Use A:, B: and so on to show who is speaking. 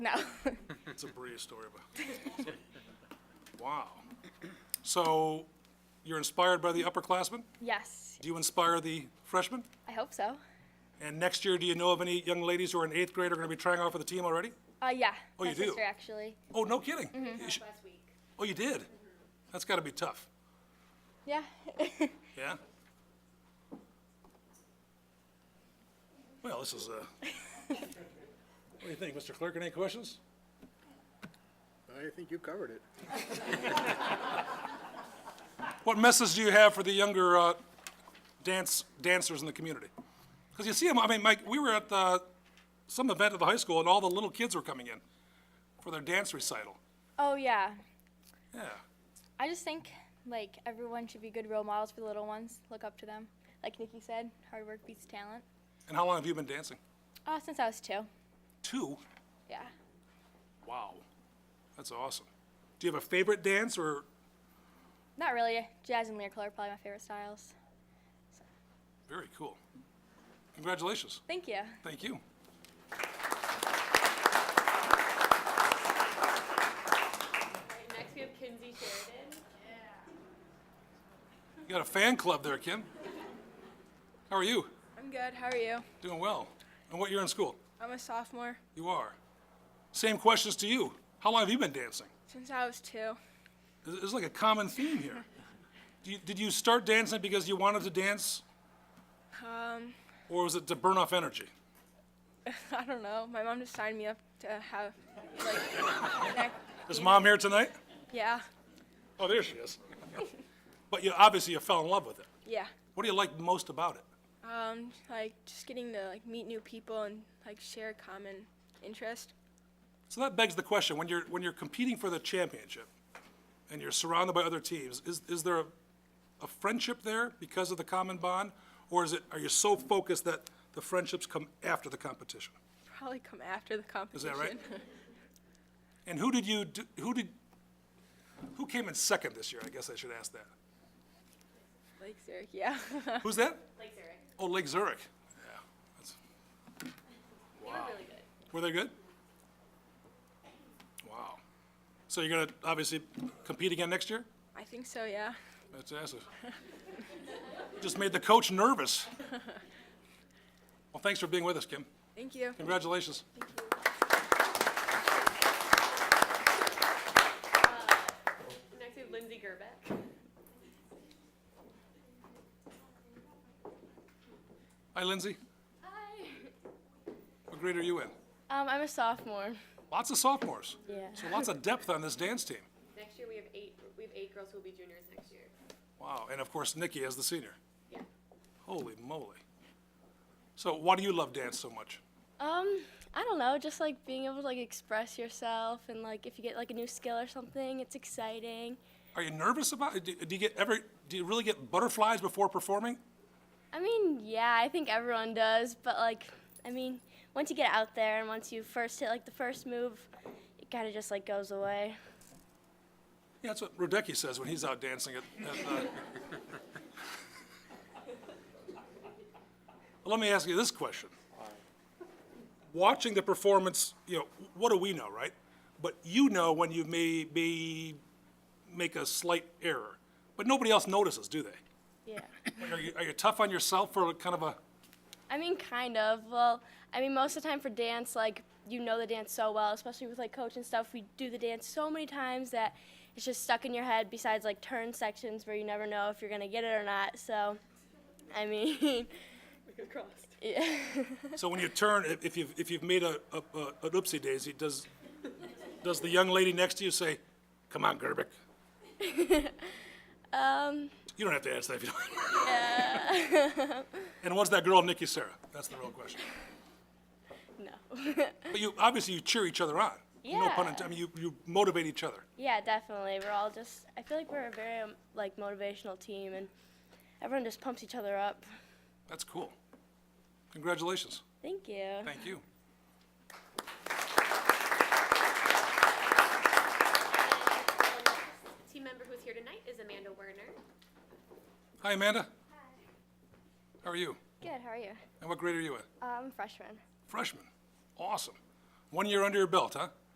A: No.
B: It's a Brea story about. Wow. So you're inspired by the upperclassmen?
A: yes,
B: Do you inspire the freshmen?
A: I hope so.
B: And next year, do you know of any young ladies who are in eighth grade are going to be trying out for the team already?
A: Uh, yeah.
B: Oh,
A: my
B: you do?
A: sister, actually.
B: Oh, no kidding? You sh- Oh, you did? That's got to be tough.
A: Yeah.
B: Yeah? Well, this is, uh, what do you think, Mr. Clerk, any questions?
C: I think you covered it.
B: What message do you have for the younger uh, dance dancers in the community? Because you see them, I mean, Mike, we were at the, some event at the high school, and all the little kids were coming in for their dance recital.
A: oh, yeah.
B: Yeah,
A: I just think like everyone should be good role models for the little ones. Look up to them. Like Nikki said, hard work beats talent.
B: and how long have you been dancing?
A: Uh, since I was two.
B: Two?
A: Yeah.
B: Wow, that's awesome. Do you have a favorite dance, or
A: Not really. Jazz and lyrical are probably my favorite styles.
B: very cool? Congratulations.
A: Thank you.
B: Thank you.
D: Right, next we have Kinsey Sheridan.
B: You got a fan club there, Kim. How are you?
E: I'm good. How are you?
B: Doing well. And what year in school?
E: I'm a sophomore
B: You are. Same questions to you. How long have you been dancing?
E: since I was two.
B: There's there's like a common theme here. Do you, did you start dancing because you wanted to dance,
E: Um,
B: or was it to burn off energy?
E: I don't know. My mom just signed me up to have, like, neck.
B: Is mom here tonight?
E: yeah,
B: Oh, there she is. but you obviously you fell in love with it.
E: yeah.
B: What do you like most about it?
E: Um, like just getting to like meet new people and like share a common interest.
B: So that begs the question: when you're when you're competing for the championship, and you're surrounded by other teams, is is there a, a friendship there because of the common bond, or is it are you so focused that the friendships come after the competition?
E: Probably come after the competition.
B: that right? And who did you, do- who did, who came in second this year? I guess I should ask that.
E: like Zurich, yeah.
B: Who's that?
D: Like Zurich.
B: Oh, Lake Zurich. Yeah. that's-
D: They were really good.
B: Were they good? Wow. So you're gonna obviously compete again next year?
E: I think so, yeah.
B: That's awesome. Just made the coach nervous. Well, thanks for being with us, Kim.
E: Thank you.
B: Congratulations.
D: Next we have Lindsay Gerbeck.
B: Hi, Lindsay.
D: Hi.
B: What grade are you in?
A: Um, I'm a sophomore.
B: Lots of sophomores.
A: Yeah.
B: So lots of depth on this dance team.
D: Next year we have eight, we have eight girls who will be juniors next year.
B: Wow, and of course Nikki as the senior.
D: Yeah.
B: Holy moly. So why do you love dance so much?
F: Um, I don't know, just like being able to like express yourself and like if you get like a new skill or something, it's exciting.
B: Are you nervous about it? Do, do you get ever do you really get butterflies before performing?
F: I mean, yeah, I think everyone does, but like I mean, once you get out there and once you first hit like the first move, it kind of just like goes away.
B: Yeah, that's what Rodecki says when he's out dancing at, at uh... Let me ask you this question. Watching the performance, you know, what do we know, right? But you know when you may be make a slight error. But nobody else notices, do they?
F: Yeah.
B: Are you, are you tough on yourself for kind of a,
F: I mean, kind of. Well, I mean, most of the time for dance, like you know the dance so well, especially with like coach and stuff. We do the dance so many times that it's just stuck in your head. Besides like turn sections where you never know if you're gonna get it or not. So, I mean,
D: Crossed.
F: yeah.
B: so when you turn, if- if you've, if you've made a, a, a- an oopsie daisy, does, does the young lady next to you say, come on, Gerbic?
F: um,
B: You don't have to answer that if you don't. And what's that girl, Nikki Sarah? That's the real question.
F: no.
B: But you, obviously you cheer each other on. No pun
F: Yeah.
B: intended, I mean, you, you motivate each other.
F: yeah, definitely. We're all just. I feel like we're a very um, like motivational team, and everyone just pumps each other up.
B: That's cool. Congratulations.
F: Thank you.
B: Thank you.
D: um, Team member who's here tonight is Amanda Werner.
B: Hi, Amanda. Hi. How are you?
F: Good. How are you?
B: And what grade are you in?
F: Um, freshman.
B: Freshman. Awesome. One year under your belt, huh?